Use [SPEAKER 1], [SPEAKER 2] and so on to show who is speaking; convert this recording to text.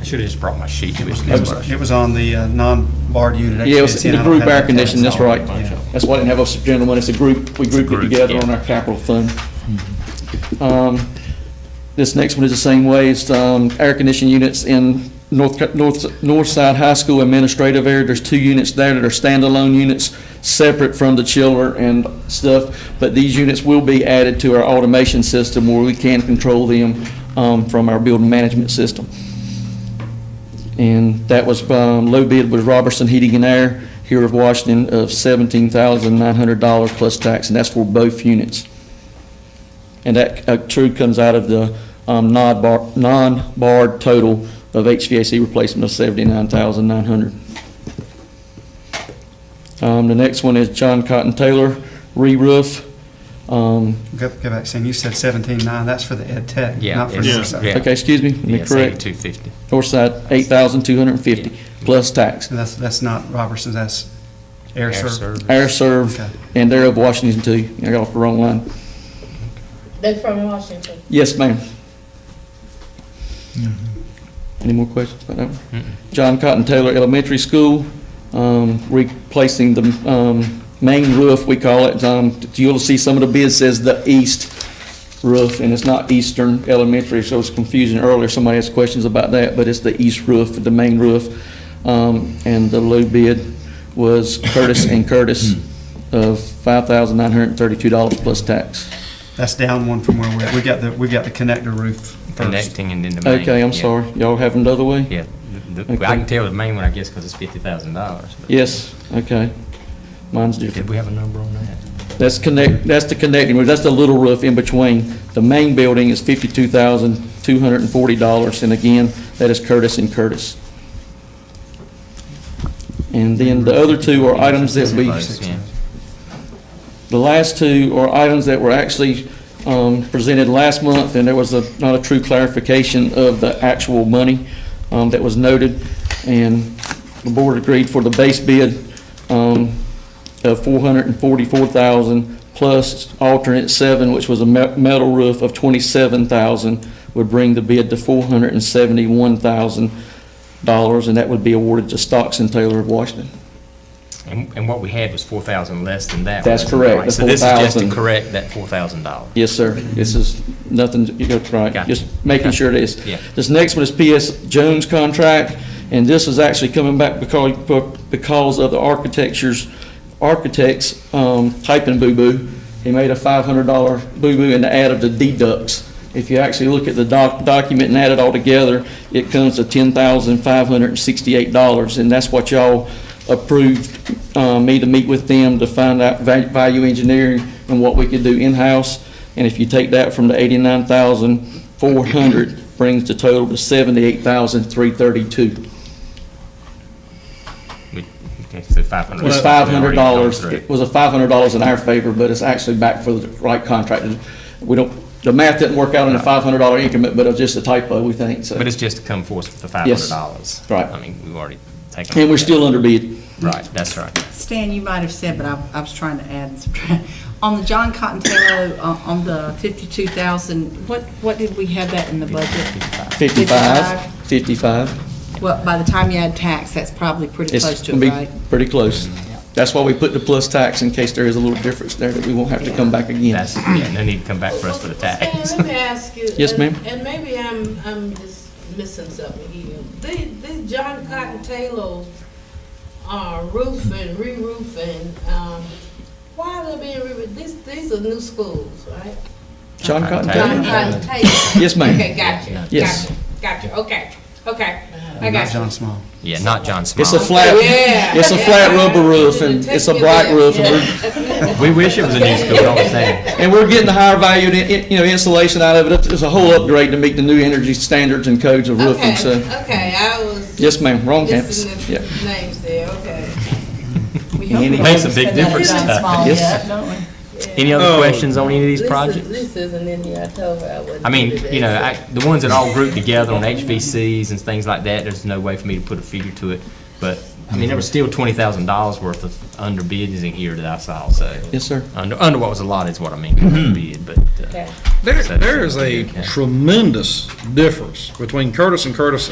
[SPEAKER 1] I should have just brought my sheet. It was
[SPEAKER 2] It
[SPEAKER 1] this
[SPEAKER 2] was,
[SPEAKER 1] much.
[SPEAKER 2] it was on the uh, non-barred unit.
[SPEAKER 3] Yeah, it was
[SPEAKER 2] HVAC,
[SPEAKER 3] the
[SPEAKER 2] I don't
[SPEAKER 3] group
[SPEAKER 2] have
[SPEAKER 3] air
[SPEAKER 2] that.
[SPEAKER 3] conditioning, that's right.
[SPEAKER 2] Yeah.
[SPEAKER 3] That's why I didn't have a general one, it's a group, we grouped it
[SPEAKER 1] Group,
[SPEAKER 3] together
[SPEAKER 1] yeah.
[SPEAKER 3] on our capital fund. Um, This next one is the same way, it's um, air conditioning units in North, Ca- North, North Side High School administrative area. There's two units there that are standalone units, separate from the chiller and stuff. But these units will be added to our automation system where we can control them um, from our building management system. And that was, um, low bid was Robertson Heating and Air here of Washington of $17,900 plus tax, and that's for both units. And that uh, true comes out of the um, non-bar- non-barred total of HVAC replacement of $79,900. Um, The next one is John Cotton Taylor re-roof. Um,
[SPEAKER 2] Go, go back, Sam, you said seventeen-nine, that's for the ed tech,
[SPEAKER 1] Yeah,
[SPEAKER 2] not for
[SPEAKER 1] it's-
[SPEAKER 2] Northside.
[SPEAKER 1] yeah.
[SPEAKER 3] Okay, excuse me, am I
[SPEAKER 1] Yes,
[SPEAKER 3] correct?
[SPEAKER 1] 8250.
[SPEAKER 3] Northside, $8,250 plus tax.
[SPEAKER 2] So that's, that's not Robertson, that's Air Serv.
[SPEAKER 3] Air Serv,
[SPEAKER 2] Okay.
[SPEAKER 3] and they're of Washington too. I got off the wrong line.
[SPEAKER 4] They're from Washington.
[SPEAKER 3] Yes, ma'am. Any more questions about that? one? John Cotton Taylor Elementary School, um, replacing the um, main roof, we call it. Um, You'll see some of the bid says the east roof, and it's not Eastern Elementary, so it's confusing earlier. Somebody asked questions about that, but it's the east roof, the main roof. Um, And the low bid was Curtis and Curtis of $5,932 plus tax.
[SPEAKER 2] That's down one from where we're, we got the, we got the connector roof first.
[SPEAKER 1] Connecting and then the main.
[SPEAKER 3] Okay, I'm
[SPEAKER 1] yeah.
[SPEAKER 3] sorry. Y'all have another way?
[SPEAKER 1] Yeah, the- the-
[SPEAKER 3] Okay.
[SPEAKER 1] I can tell the main one, I guess, because it's $50,000. but-
[SPEAKER 3] Yes, okay. Mine's
[SPEAKER 1] Did
[SPEAKER 3] different.
[SPEAKER 1] we have a number on that?
[SPEAKER 3] That's connect, that's the connecting roof, that's the little roof in between. The main building is fifty-two thousand, two hundred and forty dollars, and again, that is Curtis and Curtis. And then the other two are items that we,
[SPEAKER 1] Close, yeah.
[SPEAKER 3] the last two are items that were actually um, presented last month, and there was a, not a true clarification of the actual money um, that was noted, and the board agreed for the base bid um, of 444000 plus alternate seven, which was a me- metal roof of 27000 would bring the bid to $471,000, and that would be awarded to Stocks and Taylor of Washington.
[SPEAKER 1] And, and what we had was 4,000 less than that.
[SPEAKER 3] That's
[SPEAKER 1] wasn't it?
[SPEAKER 3] correct,
[SPEAKER 1] Right,
[SPEAKER 3] the
[SPEAKER 1] So this is just to
[SPEAKER 3] 4,000.
[SPEAKER 1] correct that $4,000.
[SPEAKER 3] Yes, sir. This is nothing, you got it right,
[SPEAKER 1] Gotcha.
[SPEAKER 3] just making
[SPEAKER 1] Gotcha.
[SPEAKER 3] sure it is.
[SPEAKER 1] Yeah.
[SPEAKER 3] This next one is PS Jones contract, and this is actually coming back because, because of the architecture's, architect's um, typing boo-boo. He made a $500 boo-boo in the add of the deducts. If you actually look at the doc, document and add it all together, it comes to $10,568, and that's what y'all approved uh, me to meet with them to find out va- value engineering and what we could do in-house. And if you take that from the eighty-nine thousand four hundred, brings the total to seventy-eight thousand three thirty-two.
[SPEAKER 1] We- okay, So 500.
[SPEAKER 3] It's five hundred dollars, it was a five hundred dollars in our favor, but it's actually back for the right contract. We don't, the math didn't work out in the five hundred dollar increment, but it was just a typo, we think, so.
[SPEAKER 1] But it's just to come forth with the
[SPEAKER 3] Yes.
[SPEAKER 1] $500.
[SPEAKER 3] Right.
[SPEAKER 1] I mean, we've already taken.
[SPEAKER 3] And we're still under bid.
[SPEAKER 1] Right, that's right.
[SPEAKER 5] Stan, you might have said, but I, I was trying to add and subtract. On the John Cotton Taylor, uh, on the fifty-two thousand, what, what did we have that in the budget?
[SPEAKER 3] Fifty-five, fifty-five.
[SPEAKER 5] Well, by the time you add tax, that's probably pretty
[SPEAKER 3] It's
[SPEAKER 5] close to
[SPEAKER 3] gonna be
[SPEAKER 5] it, right?
[SPEAKER 3] pretty close. That's why we put the plus tax in case there is a little difference there that we won't have to come back again.
[SPEAKER 1] That's, yeah, no need to come back for us for the
[SPEAKER 4] Stan,
[SPEAKER 1] tax.
[SPEAKER 4] Let me ask you.
[SPEAKER 3] Yes,
[SPEAKER 4] and-
[SPEAKER 3] ma'am.
[SPEAKER 4] And maybe I'm, I'm just missing something here. The, the John Cotton Taylor, uh, roofing, re-roofing, um, why are they being re, these, these are new schools, right?
[SPEAKER 3] John Cotton Taylor?
[SPEAKER 4] John Cotton Taylor.
[SPEAKER 3] Yes, ma'am.
[SPEAKER 4] Okay, gotcha.
[SPEAKER 3] Yes.
[SPEAKER 4] gotcha, Gotcha, okay, okay, I
[SPEAKER 2] Not
[SPEAKER 4] got you.
[SPEAKER 2] John Small.
[SPEAKER 1] Yeah, not John Smiley.
[SPEAKER 3] It's a flat,
[SPEAKER 4] Yeah.
[SPEAKER 3] it's a flat rubber roof and it's a bright roof and we're,
[SPEAKER 1] We wish it was a new school, don't we, Stan?
[SPEAKER 3] and we're getting the higher value, in- in- you know, insulation out of it. It's a whole upgrade to meet the new energy standards and codes of roofing, so.
[SPEAKER 4] Okay, okay, I was.
[SPEAKER 3] Yes, ma'am, wrong campus.
[SPEAKER 4] Listening
[SPEAKER 3] Yeah.
[SPEAKER 4] to names there, okay.
[SPEAKER 5] We hope we
[SPEAKER 3] Makes
[SPEAKER 5] haven't
[SPEAKER 1] a big
[SPEAKER 5] spent that
[SPEAKER 1] difference,
[SPEAKER 5] John
[SPEAKER 1] doesn't it?
[SPEAKER 5] Small
[SPEAKER 3] Yes.
[SPEAKER 5] yet, don't we?
[SPEAKER 1] Any other questions on any of these
[SPEAKER 4] This is-
[SPEAKER 1] projects?
[SPEAKER 4] This isn't in here, I told her I wouldn't.
[SPEAKER 1] I mean,
[SPEAKER 4] do that.
[SPEAKER 1] you know, I, the ones that all grouped together on HVCs and things like that, there's no way for me to put a figure to it. But, I mean, there was still twenty thousand dollars worth of under bids in here that I saw, so.
[SPEAKER 3] Yes, sir.
[SPEAKER 1] Under, under what was allotted is what I mean, under bid, but, uh,
[SPEAKER 4] Okay.
[SPEAKER 6] There, there is a tremendous difference between Curtis and Curtis